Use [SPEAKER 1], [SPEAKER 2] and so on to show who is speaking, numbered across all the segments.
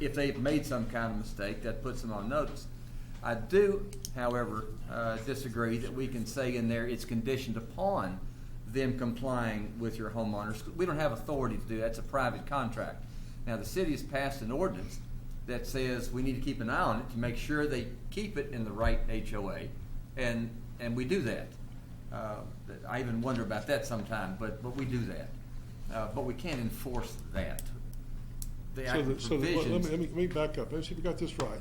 [SPEAKER 1] if they've made some kind of mistake, that puts them on notice. I do, however, uh, disagree that we can say in there it's conditioned upon them complying with your homeowners. We don't have authority to do that. It's a private contract. Now, the city has passed an ordinance that says we need to keep an eye on it to make sure they keep it in the right HOA, and, and we do that. Uh, I even wonder about that sometime, but, but we do that. Uh, But we can't enforce that. The
[SPEAKER 2] So,
[SPEAKER 1] actual
[SPEAKER 2] the- so the- let me,
[SPEAKER 1] provisions-
[SPEAKER 2] let me, let me back up, let's see if we got this right.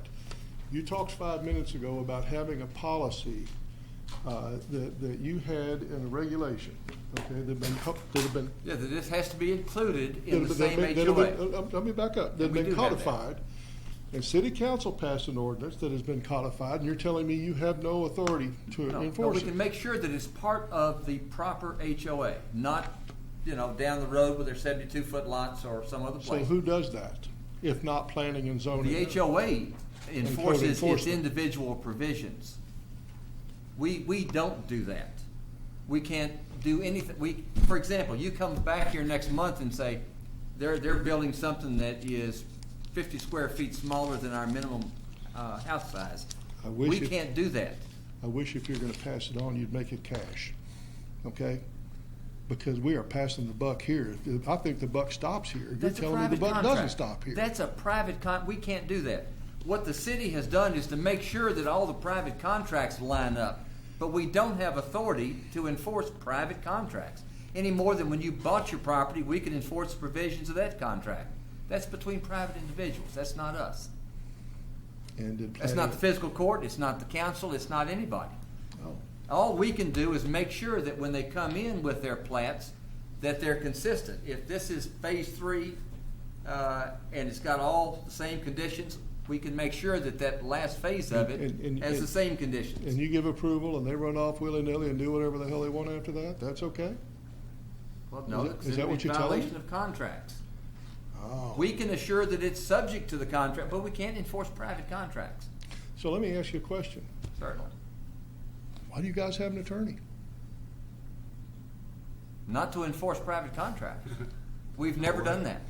[SPEAKER 2] You talked five minutes ago about having a policy, uh, that, that you had in a regulation, okay, that been, co- that have been.
[SPEAKER 1] Yeah, that this has to be included in the
[SPEAKER 2] that have
[SPEAKER 1] same
[SPEAKER 2] been- that have been-
[SPEAKER 1] HOA.
[SPEAKER 2] uh, uh, Let me back up, that
[SPEAKER 1] We
[SPEAKER 2] have been
[SPEAKER 1] do have that.
[SPEAKER 2] codified, and city council passed an ordinance that has been codified, and you're telling me you have no authority to
[SPEAKER 1] No, But
[SPEAKER 2] enforce
[SPEAKER 1] we
[SPEAKER 2] it?
[SPEAKER 1] can make sure that it's part of the proper HOA, not, you know, down the road with their seventy-two foot lots or some other
[SPEAKER 2] So
[SPEAKER 1] place.
[SPEAKER 2] who does that, if not planning and zoning?
[SPEAKER 1] The HOA enforces its
[SPEAKER 2] enforcement.
[SPEAKER 1] individual provisions. We, we don't do that. We can't do anything, we, for example, you come back here next month and say, they're, they're building something that is fifty square feet smaller than our minimum, uh, house size.
[SPEAKER 2] I wish
[SPEAKER 1] We
[SPEAKER 2] it-
[SPEAKER 1] can't do that.
[SPEAKER 2] I wish if you're gonna pass it on, you'd make it cash, okay? Because we are passing the buck here. If- I think the buck stops here. You're
[SPEAKER 1] That's a
[SPEAKER 2] telling me the
[SPEAKER 1] private
[SPEAKER 2] buck doesn't
[SPEAKER 1] contract.
[SPEAKER 2] stop here.
[SPEAKER 1] That's a private con, we can't do that. What the city has done is to make sure that all the private contracts line up, but we don't have authority to enforce private contracts any more than when you bought your property, we can enforce the provisions of that contract. That's between private individuals, that's not us.
[SPEAKER 2] And did
[SPEAKER 1] That's not the
[SPEAKER 2] planning,
[SPEAKER 1] fiscal court, it's not the council, it's not anybody.
[SPEAKER 2] oh,
[SPEAKER 1] All we can do is make sure that when they come in with their plats, that they're consistent. If this is phase three, uh, and it's got all the same conditions, we can make sure that that last phase of
[SPEAKER 2] And-
[SPEAKER 1] it
[SPEAKER 2] and-
[SPEAKER 1] has the
[SPEAKER 2] and-
[SPEAKER 1] same conditions.
[SPEAKER 2] and you give approval and they run off willy-nilly and do whatever the hell they want after that? That's okay?
[SPEAKER 1] Well, no,
[SPEAKER 2] is that-
[SPEAKER 1] that's
[SPEAKER 2] is that
[SPEAKER 1] in
[SPEAKER 2] what you're telling
[SPEAKER 1] Violation
[SPEAKER 2] me?
[SPEAKER 1] of contracts.
[SPEAKER 2] Oh.
[SPEAKER 1] We can assure that it's subject to the contract, but we can't enforce private contracts,
[SPEAKER 2] So let me ask you a question.
[SPEAKER 1] certainly.
[SPEAKER 2] Why do you guys have an attorney?
[SPEAKER 1] Not to enforce private contracts. We've never done that.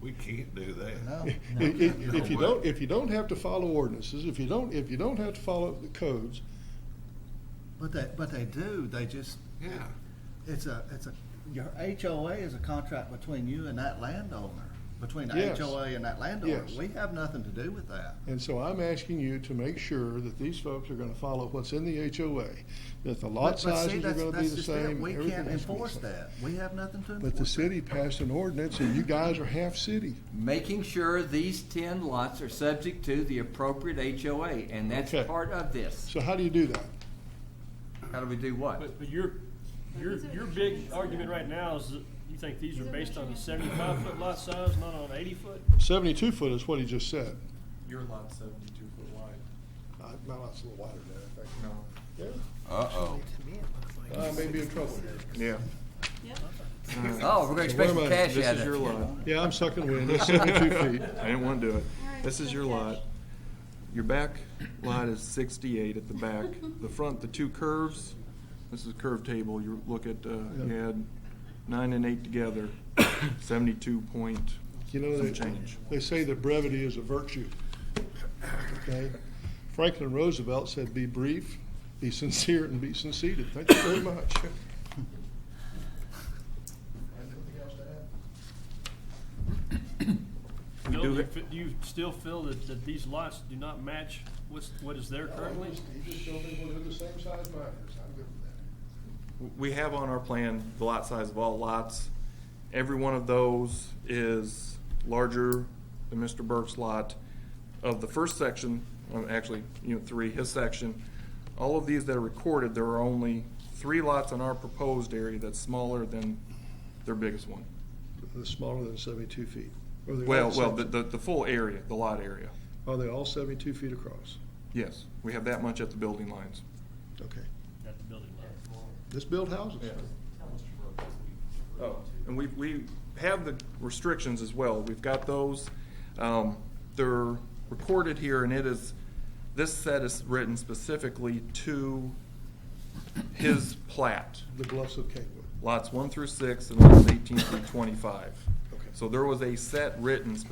[SPEAKER 3] We can't do that.
[SPEAKER 2] If- If if you don't, if you don't have to follow ordinances, if you don't, if you don't have to follow the codes,
[SPEAKER 4] But they, but they do, they just,
[SPEAKER 3] Yeah.
[SPEAKER 4] it's a, it's a, your HOA is a contract between you and that landowner, between the
[SPEAKER 2] Yes.
[SPEAKER 4] HOA and that landowner.
[SPEAKER 2] Yes.
[SPEAKER 4] We have nothing to do with that.
[SPEAKER 2] And so I'm asking you to make sure that these folks are gonna follow what's in the HOA, that the lot
[SPEAKER 4] But- but see,
[SPEAKER 2] sizes are
[SPEAKER 4] that's-
[SPEAKER 2] gonna be
[SPEAKER 4] that's
[SPEAKER 2] the
[SPEAKER 4] just it.
[SPEAKER 2] same.
[SPEAKER 4] We
[SPEAKER 2] everything
[SPEAKER 4] can't
[SPEAKER 2] has to be the
[SPEAKER 4] enforce
[SPEAKER 2] same.
[SPEAKER 4] that, we have nothing to enforce.
[SPEAKER 2] But the city passed an ordinance and you guys are half city.
[SPEAKER 1] making sure these ten lots are subject to the appropriate HOA, and that's
[SPEAKER 2] Okay.
[SPEAKER 1] part of this.
[SPEAKER 2] So how do you do that?
[SPEAKER 1] How do we do what?
[SPEAKER 5] But, but your, your, your big argument right now is that you think these are based on a seventy-five foot lot size, not on eighty foot?
[SPEAKER 2] Seventy-two foot is what he just said.
[SPEAKER 6] Your lot's seventy-two foot wide.
[SPEAKER 2] Uh, My lot's a little wider than
[SPEAKER 6] No.
[SPEAKER 2] that,
[SPEAKER 3] Uh-oh.
[SPEAKER 2] I think. I may be in trouble here.
[SPEAKER 3] Yeah.
[SPEAKER 1] Oh, we're gonna expect
[SPEAKER 2] Wait a
[SPEAKER 1] some
[SPEAKER 2] minute,
[SPEAKER 1] cash
[SPEAKER 6] This
[SPEAKER 1] out
[SPEAKER 6] is
[SPEAKER 1] of
[SPEAKER 6] your
[SPEAKER 1] it.
[SPEAKER 6] lot.
[SPEAKER 2] Yeah, I'm sucking wind, it's seventy-two feet.
[SPEAKER 6] I didn't want to do it.
[SPEAKER 7] right,
[SPEAKER 6] This is
[SPEAKER 7] so
[SPEAKER 6] your
[SPEAKER 7] cash.
[SPEAKER 6] lot. Your back lot is sixty-eight at the back. The front, the two curves, this is a curve table, you look at, uh, you
[SPEAKER 2] Yeah.
[SPEAKER 6] add nine and eight together, seventy-two point
[SPEAKER 2] You know,
[SPEAKER 6] some
[SPEAKER 2] they,
[SPEAKER 6] change.
[SPEAKER 2] they say that brevity is a virtue. Okay? Franklin Roosevelt said, "Be brief, be sincere, and be conceited." Thank you very much.
[SPEAKER 6] We
[SPEAKER 5] Bill,
[SPEAKER 6] do
[SPEAKER 5] you
[SPEAKER 6] it.
[SPEAKER 5] fe- Do you still feel that, that these lots do not match what's, what is there currently?
[SPEAKER 6] We have on our plan the lot size of all lots. Every one of those is larger than Mr. Burke's lot. Of the first section, um, actually, unit three, his section, all of these that are recorded, there are only three lots in our proposed area that's smaller than their biggest one.
[SPEAKER 2] They're smaller than seventy-two feet. Are they all
[SPEAKER 6] Well, well,
[SPEAKER 2] same-
[SPEAKER 6] the, the, the full area, the lot area.
[SPEAKER 2] Are they all seventy-two feet across?
[SPEAKER 6] Yes, we have that much at the building lines.
[SPEAKER 2] Okay.
[SPEAKER 5] That the building lot.
[SPEAKER 2] Let's build houses.
[SPEAKER 6] Oh, and we, we have the restrictions as well. We've got those. Um, they're recorded here and it is, this set is written specifically to his plat.
[SPEAKER 2] The bluffs of Capewood.
[SPEAKER 6] Lots one through six and lots eighteen through twenty-five.
[SPEAKER 2] Okay.
[SPEAKER 6] So there was a set written specifically